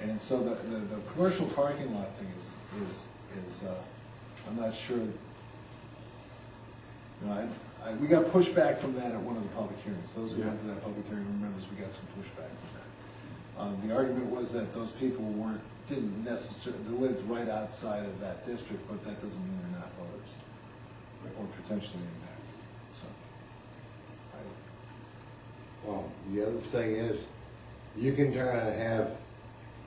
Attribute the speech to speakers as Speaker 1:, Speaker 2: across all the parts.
Speaker 1: And so the, the, the commercial parking lot thing is, is, is, uh, I'm not sure. You know, I, I, we got pushback from that at one of the public hearings, those who went to that public hearing remembers, we got some pushback from that. Um, the argument was that those people weren't, didn't necessarily, they lived right outside of that district, but that doesn't mean they're not voters. Or potentially impacted, so. I-
Speaker 2: Well, the other thing is, you can try to have,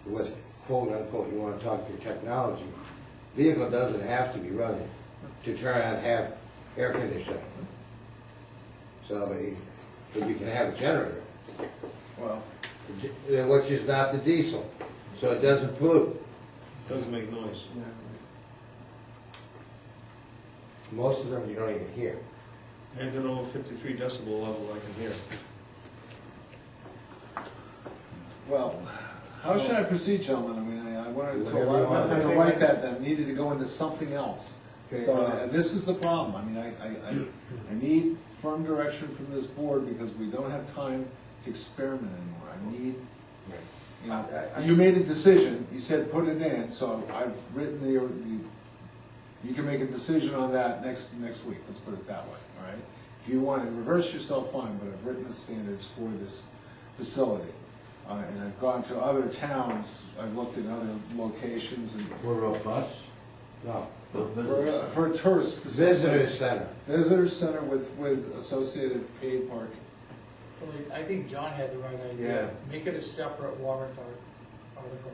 Speaker 2: with quote unquote, you wanna talk your technology, vehicle doesn't have to be running to try and have air conditioning. So, but you- but you can have a generator,
Speaker 1: Well,
Speaker 2: which is not the diesel, so it doesn't pollute.
Speaker 3: Doesn't make noise.
Speaker 2: Most of them you don't even hear.
Speaker 3: Anything over fifty-three decibel level I can hear.
Speaker 1: Well, how should I proceed, gentlemen? I mean, I I wanted to,
Speaker 2: Whatever you want.
Speaker 1: to write that, that needed to go into something else.
Speaker 2: Okay,
Speaker 1: So
Speaker 2: uh,
Speaker 1: uh, this is the problem. I mean, I, I, I- I need firm direction from this board because we don't have time to experiment anymore. I need, you know,
Speaker 2: I- I-
Speaker 1: you made a decision, you said put it in, so I've written the, the- you can make a decision on that next, next week, let's put it that way, all right? If you want to reverse yourself, fine, but I've written the standards for this facility. Uh, and I've gone to other towns, I've looked at other locations and,
Speaker 2: We're robust? No.
Speaker 1: for, for tourists.
Speaker 2: Visitor center.
Speaker 1: Visitor center with, with associated paid parking.
Speaker 4: Well, I think John had the right idea. Make it a separate warrant ar- article.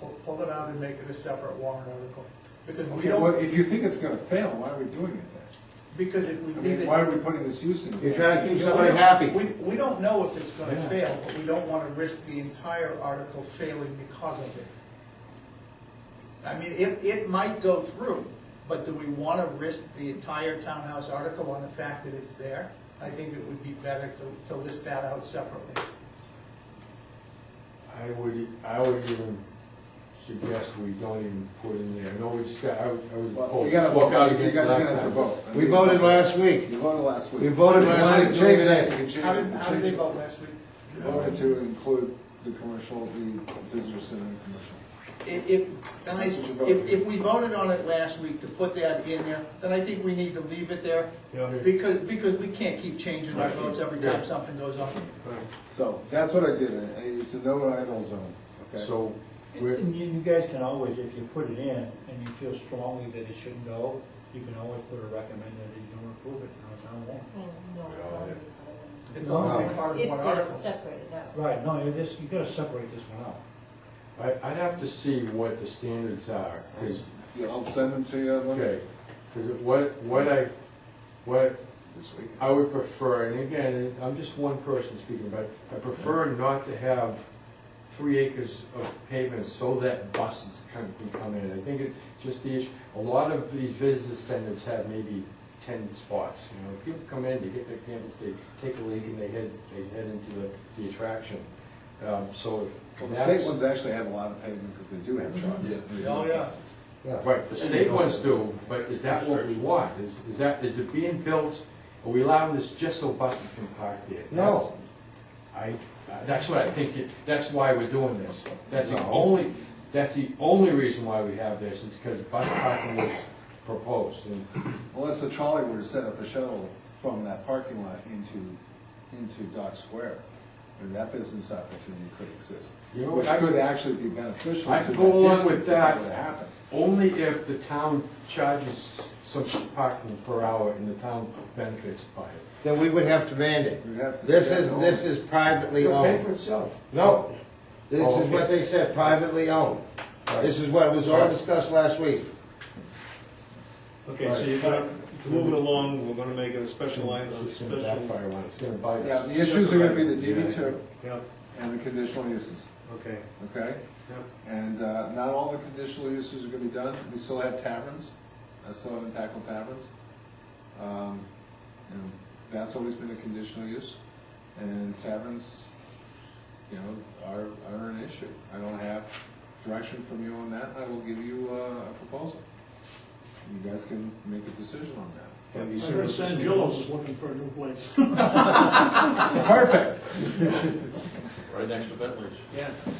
Speaker 4: Pull- Pull it out and make it a separate warrant article. Because we
Speaker 1: Okay, well,
Speaker 4: don't,
Speaker 1: if you think it's gonna fail, why are we doing it then?
Speaker 4: because if we
Speaker 1: I
Speaker 4: leave
Speaker 1: mean,
Speaker 4: it.
Speaker 1: why are we putting this use in?
Speaker 2: You're trying to keep somebody
Speaker 1: Well,
Speaker 2: happy.
Speaker 4: We, we don't know if it's gonna
Speaker 1: Yeah.
Speaker 4: fail, but we don't wanna risk the entire article failing because of it. I mean, it, it might go through, but do we wanna risk the entire townhouse article on the fact that it's there? I think it would be better to, to list that out separately.
Speaker 5: I would, I would even suggest we don't even put in there, no, we just, got- I would, I would
Speaker 1: We
Speaker 5: vote,
Speaker 1: gotta,
Speaker 5: walk out
Speaker 1: you guys
Speaker 5: against
Speaker 1: are
Speaker 5: that.
Speaker 1: gonna have to vote. I
Speaker 2: We
Speaker 1: mean,
Speaker 2: voted last week.
Speaker 1: You voted last week.
Speaker 2: We voted
Speaker 1: If you
Speaker 2: last
Speaker 1: wanted
Speaker 2: week,
Speaker 1: to Change
Speaker 2: leave it
Speaker 1: that,
Speaker 2: in.
Speaker 1: you can change
Speaker 4: How did,
Speaker 1: it.
Speaker 4: how did they
Speaker 1: change it.
Speaker 4: vote last week?
Speaker 1: You Voted to include the commercial, the visitor center and commercial.
Speaker 4: If, if,
Speaker 1: That's what you voted.
Speaker 4: if, if we voted on it last week to put that in there, then I think we need to leave it there.
Speaker 3: Yeah.
Speaker 4: Because, because we can't keep changing our votes every time
Speaker 5: Yeah.
Speaker 4: something goes on.
Speaker 1: So, that's what I did, I- it's a no idle zone, okay?
Speaker 5: So, we're,
Speaker 6: And you, you guys can always, if you put it in and you feel strongly that it shouldn't go, you can always put a recommend that you don't approve it, no, it's on warrant.
Speaker 7: Well, no, it's already
Speaker 4: It's all
Speaker 2: No.
Speaker 4: part of
Speaker 7: If
Speaker 4: one
Speaker 7: they're
Speaker 4: article.
Speaker 7: separated out.
Speaker 6: Right, no, you just, you gotta separate this one out.
Speaker 5: I, I'd have to see what the standards are, because,
Speaker 1: Yeah, I'll send them to you, Lynn,
Speaker 5: okay, because what, what I, what
Speaker 1: this week.
Speaker 5: I would prefer, and again, I'm just one person speaking, but I prefer not to have three acres of pavement so that buses can, can come in. I think it, just the issue, a lot of these visitor centers have maybe ten spots, you know, people come in, they get their campus, they take a leak and they head, they head into the, the attraction. Um, so
Speaker 1: Well,
Speaker 5: if
Speaker 1: the state
Speaker 5: that's,
Speaker 1: ones actually have a lot of pavement, because they do have trucks.
Speaker 4: Oh, yeah.
Speaker 2: Yeah.
Speaker 5: right, the state ones do, but is that what we want? Is, is that, is it being built, are we allowing this just so buses can park there?
Speaker 2: No.
Speaker 5: I, uh, that's what I think, it- that's why we're doing this. That's the
Speaker 2: No.
Speaker 5: only, that's the only reason why we have this, is because bus parking was proposed, and
Speaker 1: Unless the trolley were to set up a shuttle from that parking lot into, into Dock Square, and that business opportunity could exist.
Speaker 5: You know,
Speaker 1: Which
Speaker 5: I-
Speaker 1: could actually be beneficial
Speaker 5: I
Speaker 1: to
Speaker 5: could
Speaker 1: that
Speaker 5: go along
Speaker 1: district
Speaker 5: with
Speaker 1: if that
Speaker 5: that.
Speaker 1: were to happen.
Speaker 5: only if the town charges some parking per hour and the town benefits by it.
Speaker 2: Then we would have to mandate.
Speaker 1: We'd have to-
Speaker 2: This is, this is privately
Speaker 5: It'll pay for
Speaker 2: owned.
Speaker 5: itself.
Speaker 2: No, this
Speaker 5: Oh,
Speaker 2: is what
Speaker 5: okay.
Speaker 2: they said, privately owned.
Speaker 5: Right.
Speaker 2: This is what was all discussed last week.
Speaker 3: Okay, so you're gonna, to move it along, we're gonna make it a special item, a
Speaker 5: It's gonna
Speaker 3: special.
Speaker 5: backfire on us, it's gonna bite us.
Speaker 1: Yeah, the issues are gonna be the DB
Speaker 5: Yeah.
Speaker 1: two
Speaker 3: Yeah,
Speaker 1: and the conditional uses,
Speaker 3: okay,
Speaker 1: okay?
Speaker 3: yeah.
Speaker 1: And uh, not all the conditional uses are gonna be done, we still have taverns, I still haven't tackled taverns. Um, And that's always been a conditional use, and taverns, you know, are, are an issue. I don't have direction from you on that, I will give you uh, a proposal. You guys can make a decision on that.
Speaker 3: Have you
Speaker 8: I
Speaker 3: seen
Speaker 8: heard
Speaker 3: this?
Speaker 8: San Gillo's is looking for a new place.
Speaker 1: Perfect.
Speaker 9: Right next to Bentley's.
Speaker 1: Yeah.